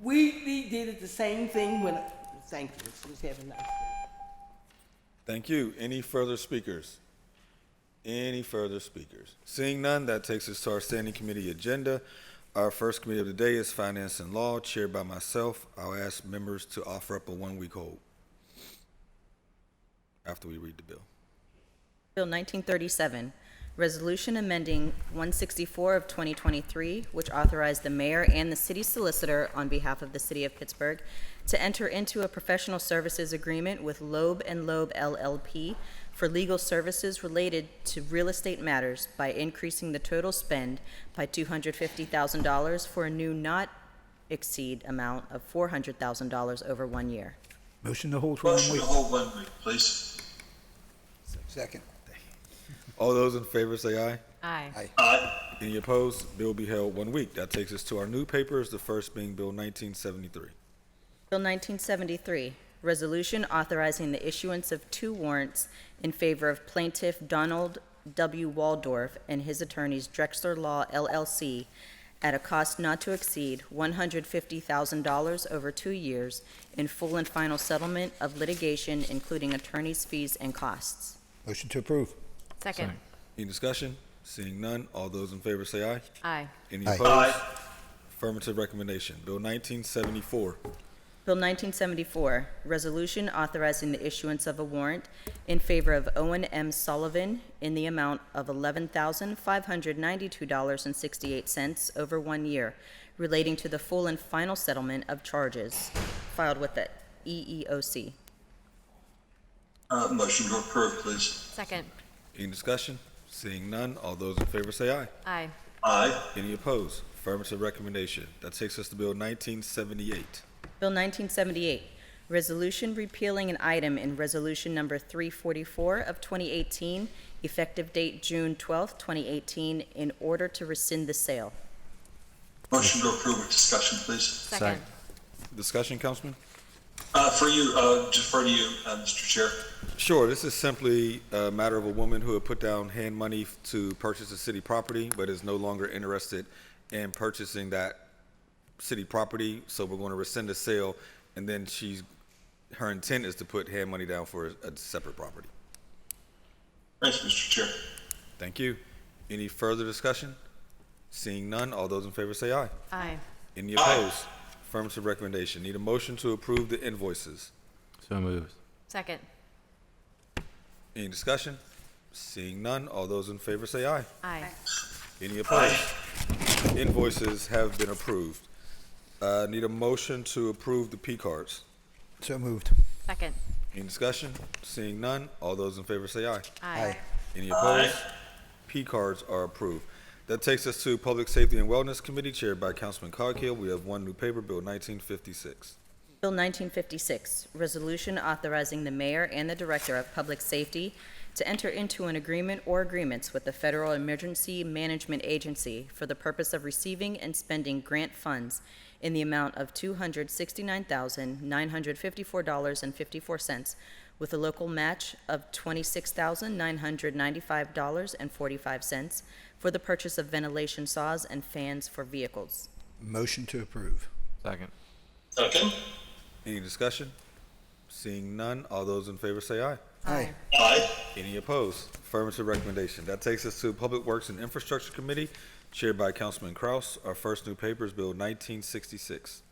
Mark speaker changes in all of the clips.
Speaker 1: We, we did it the same thing when, thank you, she was having us.
Speaker 2: Thank you. Any further speakers? Any further speakers? Seeing none, that takes us to our standing committee agenda. Our first committee of the day is Finance and Law, chaired by myself. I'll ask members to offer up a one-week hold after we read the bill.
Speaker 3: Bill 1937, Resolution Amending 164 of 2023, which authorized the mayor and the city solicitor on behalf of the city of Pittsburgh to enter into a professional services agreement with Loeb and Loeb LLP for legal services related to real estate matters by increasing the total spend by $250,000 for a new not exceed amount of $400,000 over one year.
Speaker 4: Motion to hold for one
Speaker 5: Motion
Speaker 4: week.
Speaker 5: to hold one week, please.
Speaker 6: Second.
Speaker 2: All those in favor say aye.
Speaker 3: Aye.
Speaker 5: Aye.
Speaker 2: Any opposed? Bill be held one week. That takes us to our new papers, the first being Bill 1973.
Speaker 3: Bill 1973, Resolution Authorizing the Issuance of Two Warrants in Favor of Plaintiff Donald W. Waldorf and his attorneys Drexler Law LLC at a cost not to exceed $150,000 over two years in full and final settlement of litigation, including attorney's fees and costs.
Speaker 6: Motion to approve.
Speaker 7: Second.
Speaker 2: Any discussion? Seeing none, all those in favor say aye.
Speaker 7: Aye.
Speaker 2: Any
Speaker 6: Aye.
Speaker 2: opposed? Affirmative recommendation. Bill 1974.
Speaker 3: Bill 1974, Resolution Authorizing the Issuance of a Warrant in Favor of Owen M. Sullivan in the Amount of $11,592.68 over one year relating to the full and final settlement of charges filed with the E EEOC.
Speaker 5: Uh, motion to approve, please.
Speaker 7: Second.
Speaker 2: Any discussion? Seeing none, all those in favor say aye.
Speaker 7: Aye.
Speaker 5: Aye.
Speaker 2: Any opposed? Affirmative recommendation. That takes us to Bill 1978.
Speaker 3: Bill 1978, Resolution Repealing an Item in Resolution Number 344 of 2018, effective date June 12, 2018, in order to rescind the sale.
Speaker 5: Motion to approve with discussion, please.
Speaker 7: Second.
Speaker 2: Discussion, Councilman?
Speaker 5: Uh, for you, uh, defer to you, uh, Mr. Chair.
Speaker 2: Sure, this is simply a matter of a woman who had put down hand money to purchase a city property, but is no longer interested in purchasing that city property, so we're going to rescind the sale, and then she's, her intent is to put hand money down for a separate property.
Speaker 5: Thanks, Mr. Chair.
Speaker 2: Thank you. Any further discussion? Seeing none, all those in favor say aye.
Speaker 7: Aye.
Speaker 2: Any
Speaker 5: Aye.
Speaker 2: opposed? Affirmative recommendation. Need a motion to approve the invoices.
Speaker 7: So moved. Second.
Speaker 2: Any discussion? Seeing none, all those in favor say aye.
Speaker 7: Aye.
Speaker 2: Any opposed? Invoices have been approved. Uh, need a motion to approve the P cards.
Speaker 6: So moved.
Speaker 7: Second.
Speaker 2: Any discussion? Seeing none, all those in favor say aye.
Speaker 7: Aye.
Speaker 2: Any opposed? P cards are approved. That takes us to Public Safety and Wellness Committee chaired by Councilman Coghill. We have one new paper, Bill 1956.
Speaker 3: Bill 1956, Resolution Authorizing the Mayor and the Director of Public Safety to Enter into an Agreement or Agreements with the Federal Emergency Management Agency for the Purpose of Receiving and Spending Grant Funds in the Amount of $269,954.54 with a local match of $26,995.45 for the purchase of ventilation saws and fans for vehicles.
Speaker 6: Motion to approve.
Speaker 8: Second.
Speaker 5: Second.
Speaker 2: Any discussion? Seeing none, all those in favor say aye.
Speaker 6: Aye.
Speaker 5: Aye.
Speaker 2: Any opposed? Affirmative recommendation. That takes us to Public Works and Infrastructure Committee, chaired by Councilman Kraus. Our first new paper is Bill 1966.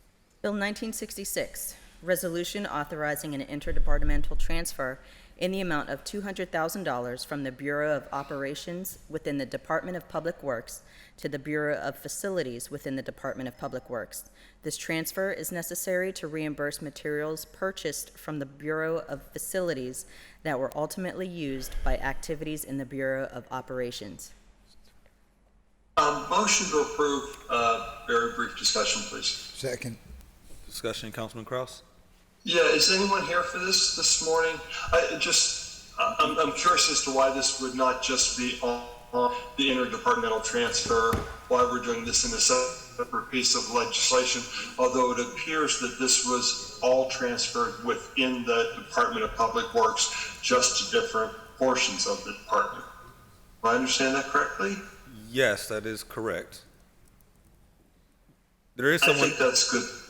Speaker 3: Bill 1966, Resolution Authorizing an Interdepartmental Transfer in the Amount of $200,000 from the Bureau of Operations within the Department of Public Works to the Bureau of Facilities within the Department of Public Works. This transfer is necessary to reimburse materials purchased from the Bureau of Facilities that were ultimately used by activities in the Bureau of Operations.
Speaker 5: Um, motion to approve, uh, very brief discussion, please.
Speaker 6: Second.
Speaker 2: Discussion, Councilman Kraus?
Speaker 5: Yeah, is anyone here for this, this morning? I it just, I- I'm, I'm curious as to why this would not just be on, on the interdepartmental transfer, why we're doing this in a separate piece of legislation, although it appears that this was all transferred within the Department of Public Works, just to different portions of the department. Do I understand that correctly?
Speaker 2: Yes, that is correct. There is
Speaker 5: I
Speaker 2: someone,
Speaker 5: think that's good.